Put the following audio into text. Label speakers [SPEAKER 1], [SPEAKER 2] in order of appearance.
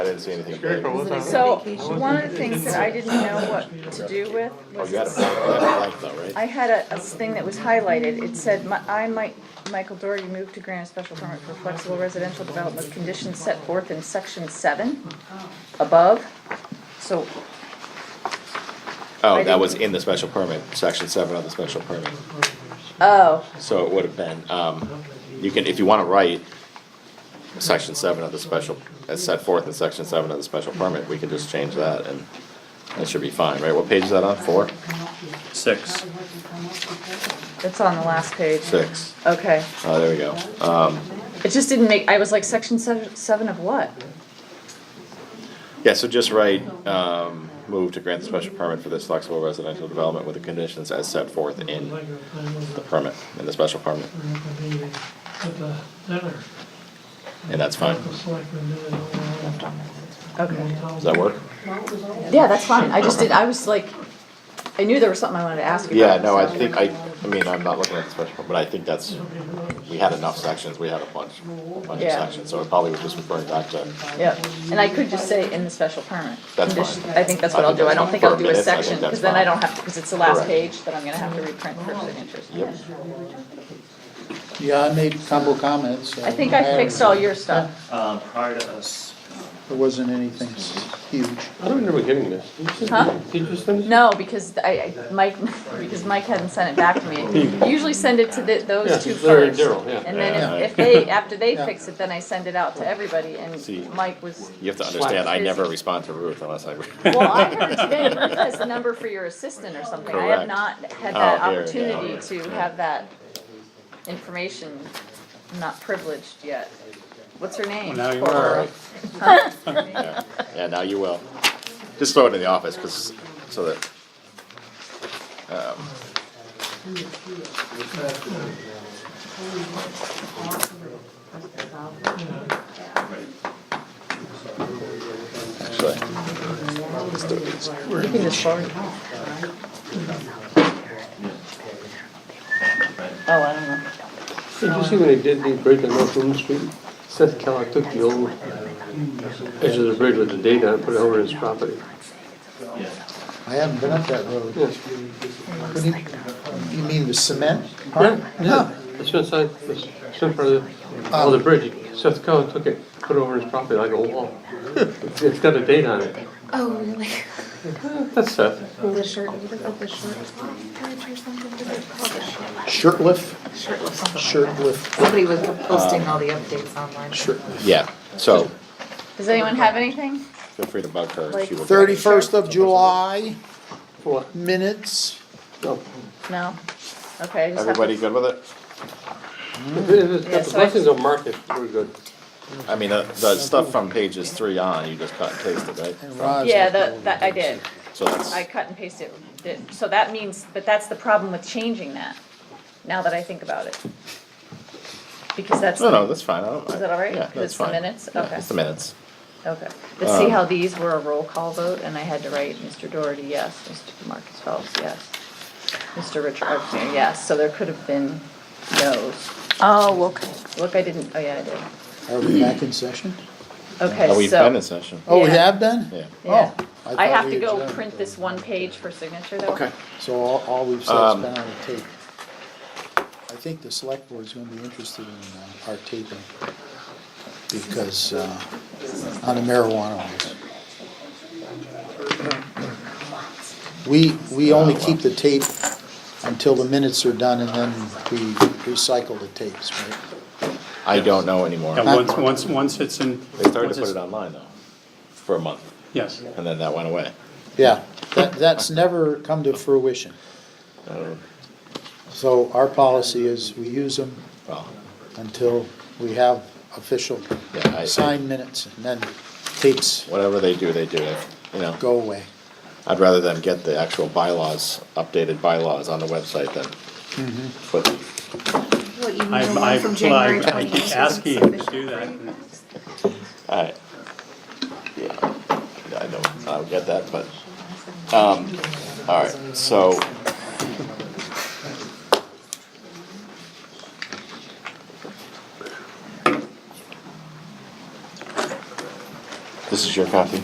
[SPEAKER 1] didn't see anything.
[SPEAKER 2] Sure,
[SPEAKER 1] about it.
[SPEAKER 2] but we'll talk.
[SPEAKER 3] So, one of the things that I didn't know what to do with
[SPEAKER 1] Oh,
[SPEAKER 3] was,
[SPEAKER 1] you had a blank, you had a blank though, right?
[SPEAKER 3] I had a, a thing that was highlighted, it said, "Mi- I might, Michael Doherty moved to grant a special permit for flexible residential development with conditions set forth in section seven above, so
[SPEAKER 1] Oh,
[SPEAKER 3] I
[SPEAKER 1] that
[SPEAKER 3] didn't-
[SPEAKER 1] was in the special permit, section seven of the special permit.
[SPEAKER 3] Oh,
[SPEAKER 1] So it would have been, um, you can, if you wanna write section seven of the special, as set forth in section seven of the special permit, we can just change that and that should be fine, right? What page is that on? Four?
[SPEAKER 4] Six.
[SPEAKER 3] it's on the last page.
[SPEAKER 1] Six?
[SPEAKER 3] Okay,
[SPEAKER 1] Oh, there we go. Um,
[SPEAKER 3] it just didn't make, I was like, section seven, seven of what?
[SPEAKER 1] yeah, so just write, um, move to grant the special permit for this flexible residential development with the conditions as set forth in the permit, in the special permit, and that's fine.
[SPEAKER 3] Okay,
[SPEAKER 1] Does that work?
[SPEAKER 3] yeah, that's fine, I just did, I was like, I knew there was something I wanted to ask you
[SPEAKER 1] Yeah,
[SPEAKER 3] about.
[SPEAKER 1] no, I
[SPEAKER 3] so-
[SPEAKER 1] think, I, I mean, I'm not looking at the special, permit, but I think that's, we had enough sections, we had a bunch, a bunch of
[SPEAKER 3] Yeah.
[SPEAKER 1] sections, so it probably would just refer back to.
[SPEAKER 3] Yep, and I could just say in the special permit.
[SPEAKER 1] That's fine.
[SPEAKER 3] Condition- I think that's what I'll do, I don't think I'll do a section, because then I don't have, because it's the last
[SPEAKER 1] Correct.
[SPEAKER 3] page that I'm gonna have to reprint for signatures.
[SPEAKER 1] Yep,
[SPEAKER 5] Yeah, I made combo comments. um,
[SPEAKER 3] I think I fixed all your stuff.
[SPEAKER 4] Um, prior to us,
[SPEAKER 5] There wasn't anything s- huge.
[SPEAKER 6] I don't remember getting this. Did you send-
[SPEAKER 3] Huh?
[SPEAKER 6] Did you send this?
[SPEAKER 3] No, because I, I- Mike, because Mike hadn't sent it back to me. Usually send it to the,
[SPEAKER 6] Yeah,
[SPEAKER 3] those two
[SPEAKER 6] Larry and
[SPEAKER 3] first.
[SPEAKER 6] Daryl, yeah.
[SPEAKER 3] And then
[SPEAKER 1] Yeah.
[SPEAKER 3] if, if they, after they
[SPEAKER 5] Yeah.
[SPEAKER 3] fix it, then I send it out to everybody,
[SPEAKER 1] See.
[SPEAKER 3] and Mike was,
[SPEAKER 1] you have to understand, I never respond to Ruth unless I.
[SPEAKER 3] well, I heard today you has the number for your assistant or something. I
[SPEAKER 1] Correct.
[SPEAKER 3] have not had
[SPEAKER 1] Oh,
[SPEAKER 3] that
[SPEAKER 1] here, yeah,
[SPEAKER 3] opportunity
[SPEAKER 1] yeah.
[SPEAKER 3] to have that information, I'm not privileged yet. What's her name?
[SPEAKER 4] now you
[SPEAKER 3] Poor
[SPEAKER 4] are.
[SPEAKER 3] girl.
[SPEAKER 1] Yeah, Yeah, now you will. Just throw it in the office, cause, so that. um, Actually, let's do these.
[SPEAKER 3] You can just forward. it. Oh, I don't know.
[SPEAKER 6] Did you see when they did the bridge on North Moon Street? Seth Keller took the old uh, edge of the bridge with the date on it, put it over his property.
[SPEAKER 5] I haven't been up that road.
[SPEAKER 6] Yes.
[SPEAKER 5] What do you, you mean the cement?
[SPEAKER 6] Yeah, yeah. It's inside, it's in front of the, of the bridge. Seth Keller took it, put it over his property like a wall. It's it's got a date on it.
[SPEAKER 7] Oh, really?
[SPEAKER 6] Eh, That's Seth.
[SPEAKER 7] The shirt, what is that, the shirt? Pledge or something, what is it called? The shirt-
[SPEAKER 5] Shirtlift,
[SPEAKER 7] Shirt or something.
[SPEAKER 5] shirtlift,
[SPEAKER 7] Somebody was posting all the updates online.
[SPEAKER 5] shirtlift.
[SPEAKER 1] Yeah, so
[SPEAKER 3] Does anyone have anything?
[SPEAKER 1] feel free to bug her. she will-
[SPEAKER 5] Thirty-first of July,
[SPEAKER 6] What?
[SPEAKER 5] minutes.
[SPEAKER 6] No.
[SPEAKER 3] No? Okay, I just have
[SPEAKER 1] Everybody
[SPEAKER 3] to,
[SPEAKER 1] good with it?
[SPEAKER 6] If it- if
[SPEAKER 3] Yeah,
[SPEAKER 6] it's- if
[SPEAKER 3] so
[SPEAKER 6] the
[SPEAKER 3] I-
[SPEAKER 6] blessings of market, we're good.
[SPEAKER 1] I mean, the, the stuff from pages three on, you just cut and pasted, right?
[SPEAKER 5] and Rod's
[SPEAKER 3] yeah,
[SPEAKER 5] up there.
[SPEAKER 3] the, that, I did.
[SPEAKER 1] So that's,
[SPEAKER 3] I cut and pasted, it. so that means, but that's the problem with changing that, now that I think about it. Because that's.
[SPEAKER 1] no, no, that's fine, I don't.
[SPEAKER 3] Is that all right?
[SPEAKER 1] Yeah,
[SPEAKER 3] 'Cause
[SPEAKER 1] that's
[SPEAKER 3] it's the
[SPEAKER 1] fine.
[SPEAKER 3] minutes?
[SPEAKER 1] Yeah,
[SPEAKER 3] Okay.
[SPEAKER 1] It's the minutes.
[SPEAKER 3] Okay, but
[SPEAKER 1] Um,
[SPEAKER 3] see how these were a roll call vote, and I had to write Mr. Doherty, yes, Mr. Marcus Phelps, yes, Mr. Richard Arpino, yes, so there could have been no's. Oh, look, look, I didn't, oh yeah, I did.
[SPEAKER 5] Are we back in session?
[SPEAKER 1] Oh,
[SPEAKER 3] Okay,
[SPEAKER 1] We've been in
[SPEAKER 3] so,
[SPEAKER 1] session.
[SPEAKER 5] Oh, we
[SPEAKER 3] Yeah.
[SPEAKER 5] have been?
[SPEAKER 1] Yeah.
[SPEAKER 3] yeah,
[SPEAKER 5] Oh, I
[SPEAKER 3] I
[SPEAKER 5] thought
[SPEAKER 3] have
[SPEAKER 5] we
[SPEAKER 3] to go
[SPEAKER 5] adjourned.
[SPEAKER 3] print this one page for signature though.
[SPEAKER 1] Okay.
[SPEAKER 5] So all, all we've said
[SPEAKER 1] Um,
[SPEAKER 5] has been on the tape. I think the select board's gonna be interested in uh, our taping because, uh, on the marijuana ones. We, we only keep the tape until the minutes are done and then we recycle the tapes, right?
[SPEAKER 1] I don't know anymore.
[SPEAKER 4] yeah, once, once, once it's in.
[SPEAKER 1] They started
[SPEAKER 4] once
[SPEAKER 1] to put
[SPEAKER 4] it's-
[SPEAKER 1] it online though, for a month,
[SPEAKER 4] Yes,
[SPEAKER 1] and then that went away.
[SPEAKER 5] Yeah, that, that's never come to fruition. So our policy is we use them
[SPEAKER 1] Well,
[SPEAKER 5] until we have official
[SPEAKER 1] Yeah, I-
[SPEAKER 5] signed minutes, and then tapes
[SPEAKER 1] whatever they do, they do it, you know.
[SPEAKER 5] go away.
[SPEAKER 1] I'd rather them get the actual bylaws, updated bylaws on the website than
[SPEAKER 4] Mm-hmm.
[SPEAKER 1] put,
[SPEAKER 7] What, you
[SPEAKER 4] I,
[SPEAKER 7] mean the
[SPEAKER 4] I,
[SPEAKER 7] one from
[SPEAKER 4] well, I
[SPEAKER 7] January
[SPEAKER 4] I keep
[SPEAKER 7] 26th?
[SPEAKER 4] asking you to do that. and
[SPEAKER 1] alright. Yeah, I don't, I don't get that, but, um, alright, so. This is your copy?